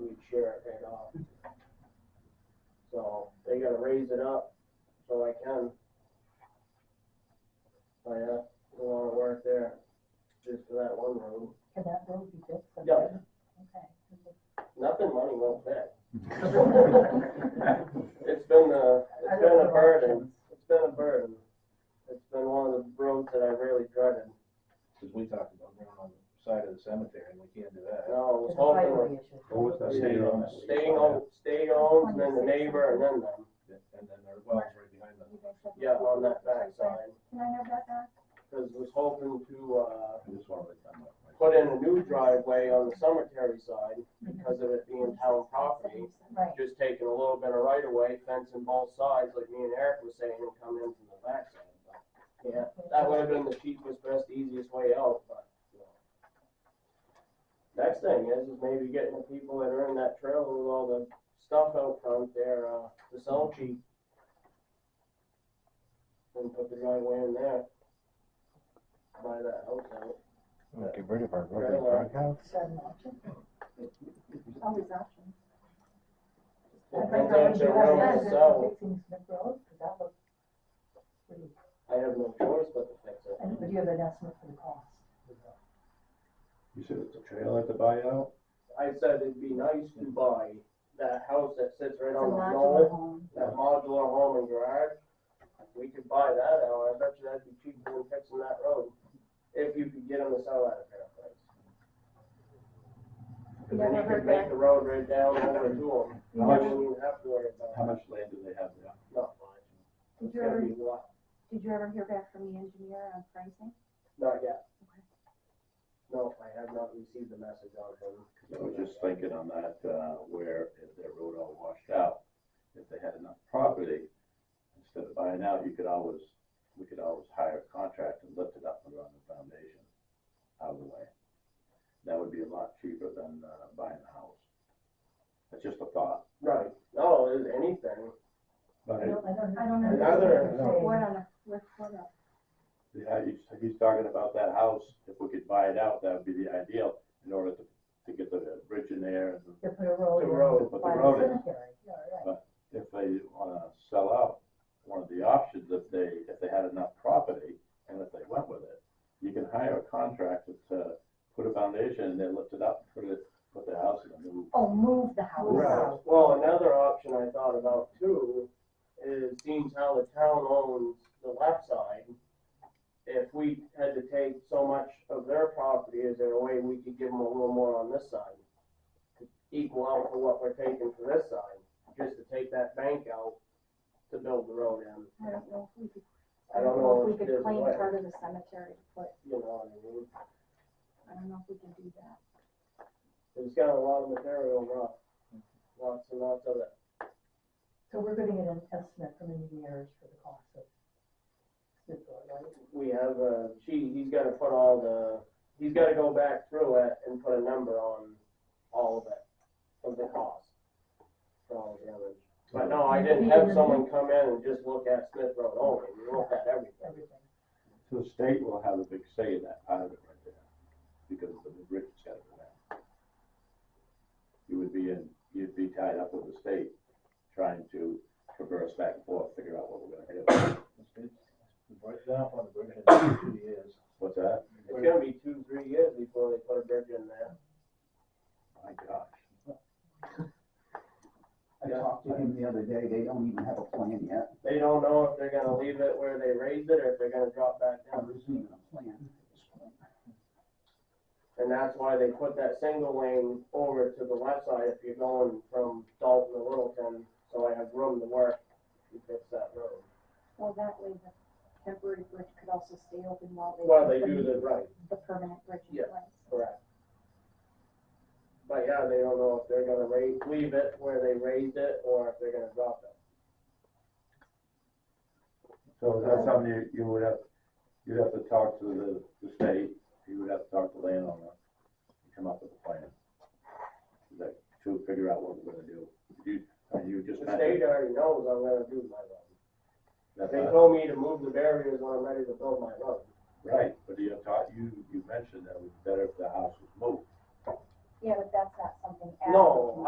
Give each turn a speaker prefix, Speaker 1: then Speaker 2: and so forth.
Speaker 1: we'd share it right off. So they gotta raise it up so I can. So yeah, don't wanna work there just for that one room.
Speaker 2: For that road you just. said.
Speaker 1: Yeah.
Speaker 2: Okay.
Speaker 1: Nothing money won't fit.
Speaker 2: I
Speaker 1: It's been a, it's
Speaker 2: don't
Speaker 1: been a
Speaker 2: know
Speaker 1: burden.
Speaker 2: options.
Speaker 1: It's been a burden. It's been one of the roads that I really dreaded.
Speaker 3: Cause we talked about going on the side of the cemetery and we can't do that.
Speaker 1: And I was
Speaker 2: It's a
Speaker 1: hoping
Speaker 2: highway issue.
Speaker 4: What was that?
Speaker 3: Stay on.
Speaker 1: staying on, staying on, and then the neighbor, and then them.
Speaker 3: And then our well's right behind them.
Speaker 1: Yeah, on that backside.
Speaker 5: Can I have that back?
Speaker 1: Because was hoping to, uh,
Speaker 3: I just wanted to come up.
Speaker 1: put in a new driveway on the cemetery side because of it being town property.
Speaker 2: Right,
Speaker 1: Just taking a little bit of right of way, fencing both sides, like me and Eric were saying, and come in from the backside. But, Yeah, that would have been the cheapest, best, easiest way out, but, you know. Next thing is, is maybe getting the people that are in that trailer with all the stuff out front there, uh, to sell cheap. And put the driveway in there. Buy that house out.
Speaker 4: Get rid of our
Speaker 1: rubber
Speaker 4: rubber
Speaker 1: duck
Speaker 4: house.
Speaker 2: is that an option? Oh,
Speaker 5: Always options.
Speaker 1: I
Speaker 2: I
Speaker 1: think
Speaker 2: think
Speaker 1: that's
Speaker 2: you
Speaker 1: a
Speaker 2: have
Speaker 1: road,
Speaker 2: that,
Speaker 1: so
Speaker 2: fixing Smith Road, 'cause that was pretty,
Speaker 1: I have no choice but to fix it.
Speaker 2: and do you have an estimate for the cost?
Speaker 4: You said it's a trailer to buy out?
Speaker 1: I said it'd be nice to buy that house that sits right
Speaker 5: It's a
Speaker 1: on the
Speaker 5: modular
Speaker 1: knoll,
Speaker 5: home.
Speaker 1: that modular home and garage. We could buy that out, I bet you that'd be cheaper than fixing that road, if you could get them to sell that at a fair price. Cause then you
Speaker 5: Never
Speaker 1: could
Speaker 5: heard
Speaker 1: make
Speaker 5: back.
Speaker 1: the road right down over to them,
Speaker 4: How
Speaker 1: you
Speaker 4: much,
Speaker 1: wouldn't even have to worry about
Speaker 4: how
Speaker 1: it,
Speaker 4: much land do they have there?
Speaker 1: not much.
Speaker 5: Did
Speaker 1: It's
Speaker 5: you
Speaker 1: gonna
Speaker 5: ever,
Speaker 1: be a lot,
Speaker 5: did you ever hear back from the engineer on pricing?
Speaker 1: not yet. No, I have not received the message on him.
Speaker 6: I was just thinking on that, uh, where if that road all washed out, if they had enough property, instead of buying out, you could always, we could always hire a contractor and lift it up and run the foundation out of the way. That would be a lot cheaper than, uh, buying the house. That's just a thought.
Speaker 1: Right, no, there's anything.
Speaker 4: But
Speaker 2: I don't, I don't.
Speaker 5: I don't
Speaker 2: I
Speaker 5: understand.
Speaker 1: Another-
Speaker 2: what you're
Speaker 5: What
Speaker 2: saying.
Speaker 5: on a, with what a,
Speaker 6: Yeah, he's, he's talking about that house, if we could buy it out, that would be the ideal, in order to, to get the bridge in there. and
Speaker 2: You put a road.
Speaker 1: The
Speaker 2: in
Speaker 1: road,
Speaker 6: but the
Speaker 2: by
Speaker 6: road is-
Speaker 2: cemetery. Yeah, right.
Speaker 6: if they wanna sell out, one of the options, if they, if they had enough property, and if they went with it, you can hire a contractor to put a foundation, and they lift it up, put it, put the house in the new.
Speaker 2: Oh, move the house
Speaker 1: Right.
Speaker 2: out.
Speaker 1: Well, another option I thought about too is seeing how the town owns the left side. If we had to take so much of their property, is there a way we could give them a little more on this side? to Equal out for what we're taking for this side, just to take that bank out to build the road in.
Speaker 5: I don't know if we could.
Speaker 1: I don't know
Speaker 5: We
Speaker 1: if
Speaker 5: could
Speaker 1: there's a
Speaker 5: claim
Speaker 1: way,
Speaker 5: part of the cemetery, but
Speaker 1: you know what I mean?
Speaker 5: I don't know if we can do that.
Speaker 1: It's got a lot of material rough, lots and lots of it.
Speaker 2: So we're gonna get an estimate from engineers for the cost of Smith Road, right?
Speaker 1: we have a sheet, he's gotta put all the, he's gotta go back through it and put a number on all of it, of the cost. For all the damage. But no, I didn't have someone come in and just look at Smith Road only, we looked at everything.
Speaker 2: Everything.
Speaker 6: So the state will have a big say in that part of it right there, because of the bridge that's gotta go down. You would be in, you'd be tied up with the state, trying to traverse back and forth, figure out what we're gonna do.
Speaker 3: We brought that up on the bridge in two years.
Speaker 6: What's that?
Speaker 1: It's gonna be two, three years before they put a bridge in there.
Speaker 6: My gosh.
Speaker 7: I talked to him the other day, they don't even have a plan yet,
Speaker 1: They don't know if they're gonna leave it where they raised it, or if they're gonna drop back down.
Speaker 7: there's even a plan.
Speaker 1: And that's why they put that single lane over to the left side if you're going from Dalton to Littleton, so I have room to work to fix that road.
Speaker 5: Well, that way the temporary bridge could also stay open while they.
Speaker 1: While they do the right,
Speaker 5: The permanent bridge in
Speaker 1: Yeah.
Speaker 5: place.
Speaker 1: correct. But yeah, they don't know if they're gonna raise, leave it where they raised it, or if they're gonna drop it.
Speaker 6: So is that something you, you would have, you'd have to talk to the, the state, you would have to talk to landowner, and come up with a plan. Like, to figure out what we're gonna do. You, I mean, you just
Speaker 1: The state
Speaker 6: mentioned
Speaker 1: already knows I'm gonna do my road.
Speaker 6: that,
Speaker 1: They
Speaker 6: uh,
Speaker 1: told me to move the barriers when I'm ready to build my road.
Speaker 6: right, but you taught, you, you mentioned that it would be better if the house was moved.
Speaker 5: Yeah, but that's not something.
Speaker 1: No,